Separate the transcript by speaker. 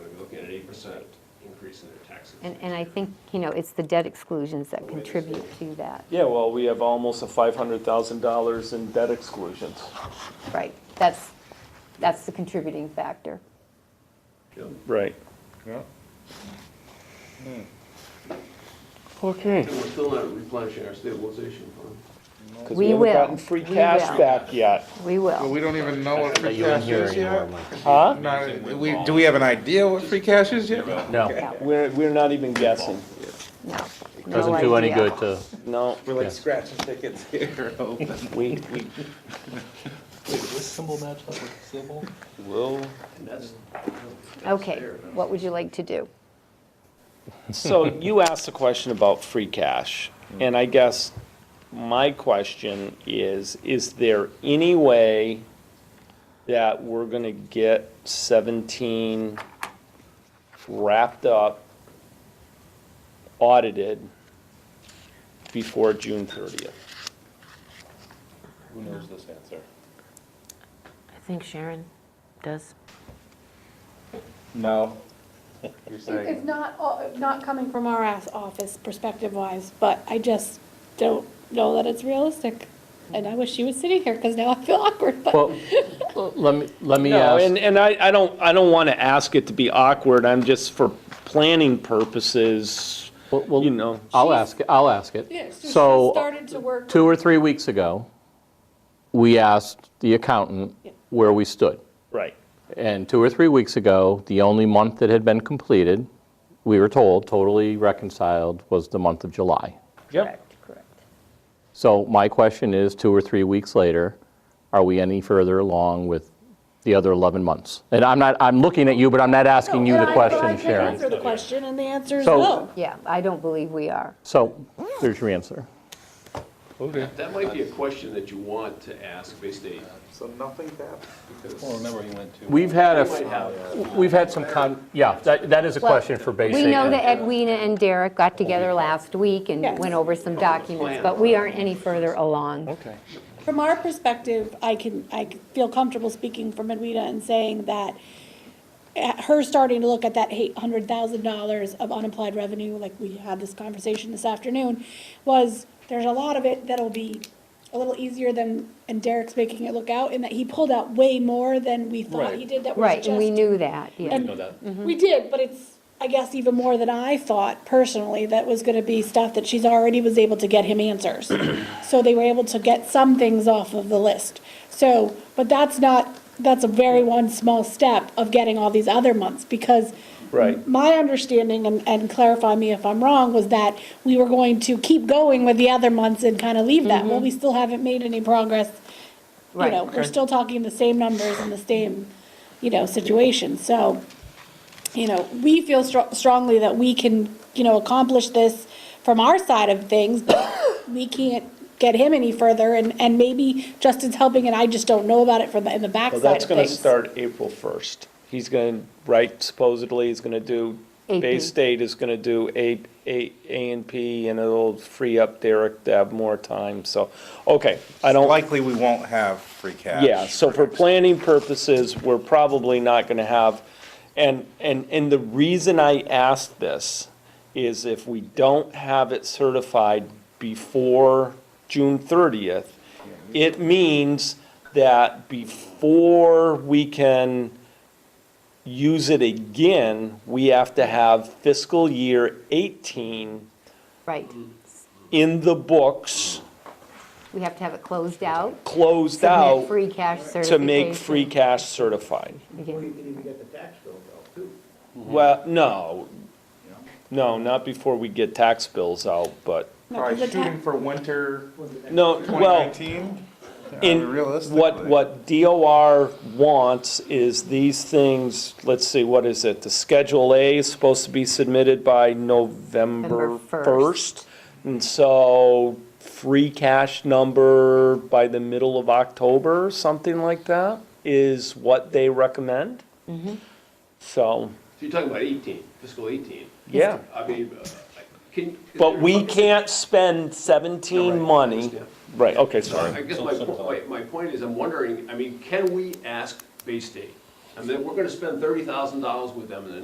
Speaker 1: eight percent increase in their taxes.
Speaker 2: And, and I think, you know, it's the debt exclusions that contribute to that,
Speaker 3: Yeah, well, we have almost a five hundred thousand dollars in debt exclusions.
Speaker 2: right? That's, that's the contributing factor.
Speaker 3: Right.
Speaker 4: Yeah.
Speaker 3: Okay.
Speaker 5: And we're still not replenishing our stabilization fund.
Speaker 3: Because
Speaker 2: We
Speaker 3: we haven't
Speaker 2: will.
Speaker 3: gotten free
Speaker 2: We
Speaker 3: cash
Speaker 2: will.
Speaker 3: back yet.
Speaker 2: We
Speaker 4: Well,
Speaker 2: will.
Speaker 4: we don't even know what free
Speaker 6: you wouldn't
Speaker 4: cash
Speaker 6: hear
Speaker 4: is
Speaker 6: anymore,
Speaker 4: yet.
Speaker 6: Mike.
Speaker 3: Huh?
Speaker 4: Not, we, do we have an idea what free cash is yet?
Speaker 6: No,
Speaker 3: We're, we're not even guessing.
Speaker 2: No. no
Speaker 6: doesn't do any
Speaker 2: idea.
Speaker 6: good to,
Speaker 3: No,
Speaker 4: We're like scratching tickets here, open.
Speaker 3: we, we will.
Speaker 5: And that's,
Speaker 2: Okay, what would you like to do?
Speaker 3: So you asked a question about free cash, and I guess my question is, is there any way that we're gonna get seventeen wrapped up, audited before June thirtieth?
Speaker 7: Who knows this answer?
Speaker 8: I think Sharon does.
Speaker 4: No.
Speaker 7: You're
Speaker 9: It's not, all- not coming from our ass office perspective wise, but I just don't know that it's realistic. And I wish she was sitting here, because now I feel awkward, but.
Speaker 6: well, let me, let me
Speaker 3: No,
Speaker 6: ask,
Speaker 3: and, and I, I don't, I don't wanna ask it to be awkward, I'm just for planning purposes,
Speaker 6: well,
Speaker 3: you
Speaker 6: well,
Speaker 3: know.
Speaker 6: I'll ask, it. I'll ask it. So,
Speaker 9: Started to work.
Speaker 6: two or three weeks ago, we asked the accountant
Speaker 9: Yeah.
Speaker 6: where we stood.
Speaker 3: Right.
Speaker 6: And two or three weeks ago, the only month that had been completed, we were told, totally reconciled, was the month of July.
Speaker 3: Yep.
Speaker 2: correct.
Speaker 6: So my question is, two or three weeks later, are we any further along with the other 11 months? And I'm not, I'm looking at you, but I'm not asking you the question,
Speaker 9: I
Speaker 6: Sharon.
Speaker 9: answer the question, and the answer is
Speaker 6: So-
Speaker 9: no.
Speaker 2: Yeah, I don't believe we are.
Speaker 6: So there's your answer.
Speaker 4: Okay.
Speaker 5: that might be a question that you want to ask Bay State,
Speaker 4: So nothing's happened.
Speaker 5: because
Speaker 7: Well, remember he went to.
Speaker 6: We've had
Speaker 5: they might
Speaker 6: a,
Speaker 5: have
Speaker 6: we've had some, con- yeah, that that is a
Speaker 2: Well,
Speaker 6: question for Bay
Speaker 2: We know
Speaker 6: State.
Speaker 2: that Edwina and Derek got together last week and
Speaker 9: Yes.
Speaker 2: went over some documents,
Speaker 5: Plan.
Speaker 2: but we aren't any further along.
Speaker 3: Okay.
Speaker 9: From our perspective, I can, I feel comfortable speaking for Edwina and saying that at her starting to look at that eight hundred thousand dollars of unapplied revenue, like we had this conversation this afternoon, was there's a lot of it that'll be a little easier than, and Derek's making it look out, in that he pulled out way more than we thought he
Speaker 7: Right.
Speaker 9: did that was
Speaker 2: Right,
Speaker 9: just.
Speaker 2: and we knew that, yeah.
Speaker 9: And-
Speaker 7: Know that.
Speaker 9: We did, but it's, I guess, even more than I thought personally, that was gonna be stuff that she's already was able to get him answers. So they were able to get some things off of the list. So, but that's not, that's a very one small step of getting all these other months, because
Speaker 3: Right.
Speaker 9: my understanding, and, and clarify me if I'm wrong, was that we were going to keep going with the other months and kind of leave that. Well, we still haven't made any progress. You
Speaker 2: Right.
Speaker 9: know, we're still talking the same numbers and the same, you know, situation, so, you know, we feel str- strongly that we can, you know, accomplish this from our side of things, but we can't get him any further, and, and maybe Justin's helping, and I just don't know about it from, the in the backside
Speaker 3: Well,
Speaker 9: of things.
Speaker 3: that's gonna start April first. He's gonna, right, supposedly he's gonna do, Bay
Speaker 2: AP.
Speaker 3: State is gonna do A, A, A and P, and it'll free up Derek to have more time, so, okay, I don't,
Speaker 4: Likely we won't have free cash.
Speaker 3: yeah, so for planning purposes, we're probably not gonna have, and, and, and the reason I asked this is if we don't have it certified before June thirtieth, it means that before we can use it again, we have to have fiscal year eighteen
Speaker 2: Right.
Speaker 3: in the books,
Speaker 2: We have to have it closed out,
Speaker 3: closed
Speaker 2: submit
Speaker 3: out,
Speaker 2: free cash
Speaker 3: to
Speaker 2: certification.
Speaker 3: make free cash certified.
Speaker 2: again.
Speaker 3: Well, no. No, not before we get tax bills out, but,
Speaker 9: Not
Speaker 4: Probably
Speaker 9: the ta-
Speaker 4: shooting for winter
Speaker 3: no, well,
Speaker 4: 2019.
Speaker 3: in, what,
Speaker 4: realistically.
Speaker 3: what DOR wants is these things, let's see, what is it? The Schedule A is supposed to be submitted by November
Speaker 2: November 1st.
Speaker 3: first. And so free cash number by the middle of October, something like that, is what they recommend. So,
Speaker 5: So you're talking about 18, fiscal 18.
Speaker 3: yeah.
Speaker 5: I mean, uh, can.
Speaker 3: But we can't spend 17 money.
Speaker 5: Yeah.
Speaker 3: Right, okay,
Speaker 5: I
Speaker 3: sorry.
Speaker 5: guess my, po- my, my point is, I'm wondering, I mean, can we ask Bay State? I mean, we're gonna spend $30,000 with them in the